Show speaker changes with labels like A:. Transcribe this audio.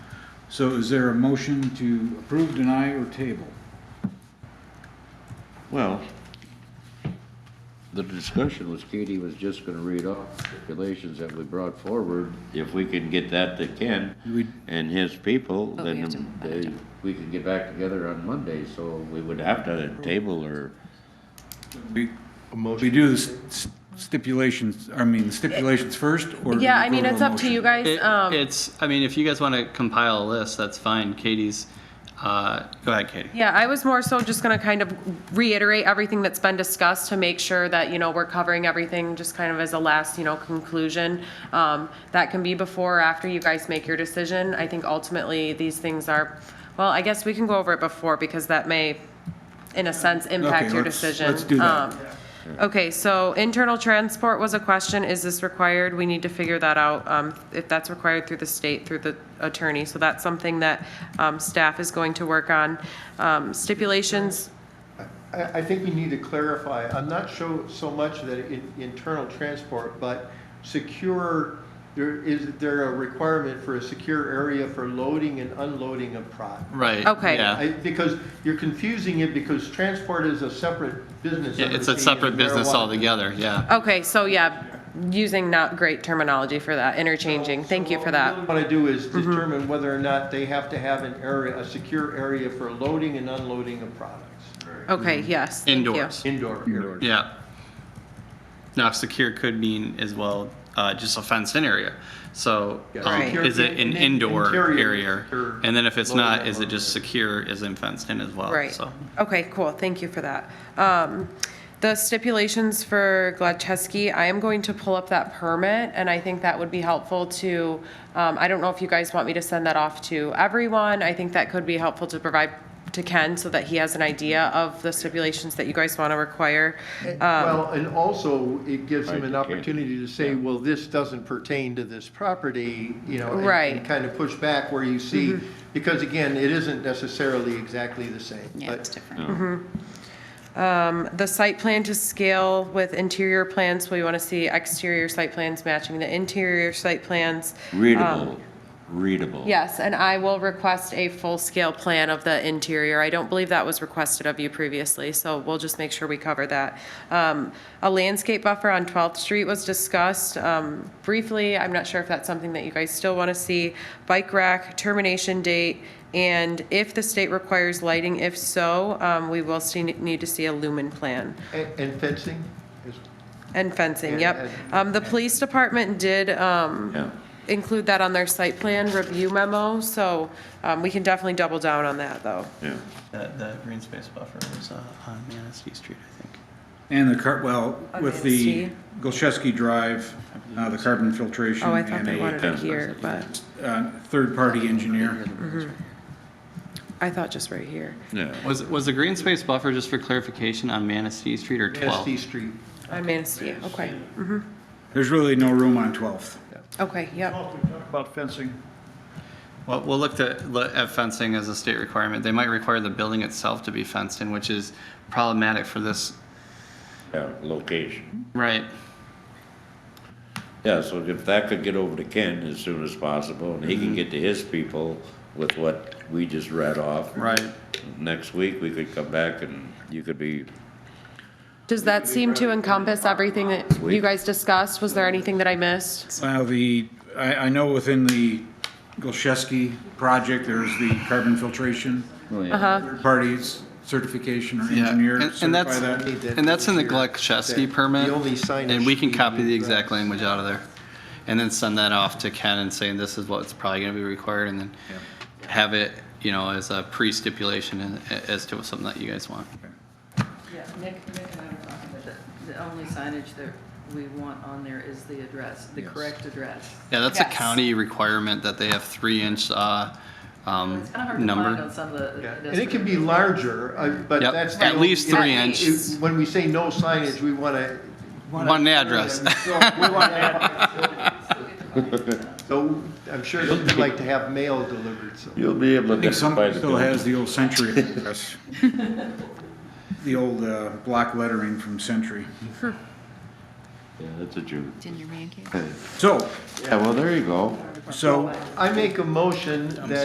A: So is there a motion to approve, deny, or table?
B: Well, the discussion was Katie was just gonna read off stipulations that we brought forward. If we can get that to Ken
A: We-
B: and his people,
C: But we have to-
B: then they, we can get back together on Monday, so we would have to table or,
A: We, we do the s- stipulations, I mean, the stipulations first, or? do we
C: Yeah, I mean,
A: vote on
C: it's up to
A: motion?
C: you guys.
D: It,
C: Um,
D: it's, I mean, if you guys want to compile a list, that's fine. Katie's, uh, go ahead, Katie.
C: Yeah, I was more so just gonna kind of reiterate everything that's been discussed to make sure that, you know, we're covering everything, just kind of as a last, you know, conclusion. Um, that can be before or after you guys make your decision. I think ultimately, these things are, well, I guess we can go over it before, because that may, in a sense, impact
A: Okay,
C: your
A: let's-
C: decision.
A: let's do that.
C: Um, Okay, so internal transport was a question. Is this required? We need to figure that out, um, if that's required through the state, through the attorney. So that's something that, um, staff is going to work on. Um, stipulations,
E: I, I think we need to clarify, I'm not sure so much that in, internal transport, but secure, there, is there a requirement for a secure area for loading and unloading of product?
D: Right.
C: Okay.
D: Yeah.
E: I, because you're confusing it because transport is a separate business.
D: Yeah, It's
E: undertaking
D: a separate
E: of
D: business
E: marijuana.
D: altogether, yeah.
C: okay, so yeah, using not great terminology for that, interchanging. Thank you for that. Mm-hmm.
E: What I do is determine whether or not they have to have an area, a secure area for loading and unloading of products,
C: Okay, yes, thank you.
D: Indoors.
E: indoor area.
D: Yeah. Now, secure could mean as well, uh, just a fenced-in area. So,
E: Yeah,
D: um,
C: Right.
D: is it an
E: secure-
D: indoor
E: interior
D: area?
E: secure
D: And then if it's
E: loading
D: not,
E: and
D: is it just
E: unloading.
D: secure, is it fenced-in as well?
C: Right.
D: So,
C: Okay, cool. Thank you for that. Um, the stipulations for Gladchesky, I am going to pull up that permit and I think that would be helpful to, um, I don't know if you guys want me to send that off to everyone. I think that could be helpful to provide to Ken so that he has an idea of the stipulations that you guys want to require.
F: Um,
E: Well, and also, it gives him an
B: Right, you can't-
E: opportunity to say, well, this doesn't pertain to this property, you know, and-
C: Right.
E: and kind of push back where you see,
F: Mm-hmm.
E: because again, it isn't necessarily exactly the same.
F: Yeah,
E: but-
F: it's different.
C: The site plan to scale with interior plans, we want to see exterior site plans matching the interior site plans. Um,
B: readable, readable.
C: Yes, and I will request a full-scale plan of the interior. I don't believe that was requested of you previously, so we'll just make sure we cover that. Um, A landscape buffer on 12th Street was discussed um, briefly. I'm not sure if that's something that you guys still want to see. Bike rack, termination date, and if the state requires lighting, if so, um, we will see, need to see a lumen plan.
E: And and fencing is
C: And fencing,
E: And-
C: yep. Um, The police department did um,
B: Yeah.
C: include that on their site plan review memo, so um, we can definitely double down on that, though.
B: Yeah.
D: the, the green space buffer was, uh, on Manistee Street, I think.
A: And the car, well, with the
C: Against
A: Golczewski Drive, uh, the carbon filtration
C: Oh, I thought
A: and
C: they
A: a,
C: wanted it here, but
A: uh, third-party engineer.
C: I thought just right here.
B: Yeah.
D: Was, was the green space buffer, just for clarification, on Manistee Street or 12?
E: SD Street.
C: On Manistee, okay,
A: There's really no room on 12th.
C: okay, yep.
G: About fencing,
D: Well, we'll look to, look at fencing as a state requirement. They might require the building itself to be fenced in, which is problematic for this,
B: Yeah, location.
D: right?
B: Yeah, so if that could get over to Ken as soon as possible, and he can get to his people with what we just read off.
D: Right.
B: Next week, we could come back and you could be
C: Does that seem to encompass everything that you guys discussed? Was there anything that I missed?
A: Well, the, I, I know within the Golczewski project, there's the carbon filtration,
C: Uh-huh.
A: third-party certification or
D: Yeah,
A: engineer
D: and- and
A: certify
D: that's-
A: that.
D: And that's in the Gluckchesky
E: That-
D: permit.
E: the only signage
D: And we can
E: we
D: copy the
E: need,
D: exact
E: right.
D: language out of there. And then send that off to Ken and saying this is what's probably gonna be required and then have it, you know, as a pre-stipulation in- as to something that you guys want.
H: Yeah, Nick, Nick and I were talking about that. The only signage that we want on there is the address, the correct address.
D: Yeah, that's a
C: Yes.
D: county requirement that they have three inch, uh, um,
H: It's kind of hard to find
D: number.
H: on some of the.
E: Yeah, And
H: pedestrian-
E: it can be larger, uh, but
D: Yep,
E: that's. the
D: at
E: only-
D: least three
C: At
D: inch,
C: least.
E: When we say no signage, we want to.
D: one address.
E: So I'm sure they'd like to have mail delivered, so.
B: You'll be able
A: I
B: to
A: think some
B: identify the
A: still
B: building.
A: has the old Century address. The old, uh, block lettering from Century.
B: Yeah, that's a Jew.
F: It's in your pancake.
A: So,
B: Yeah, well, there you go.
A: so
E: I make a motion that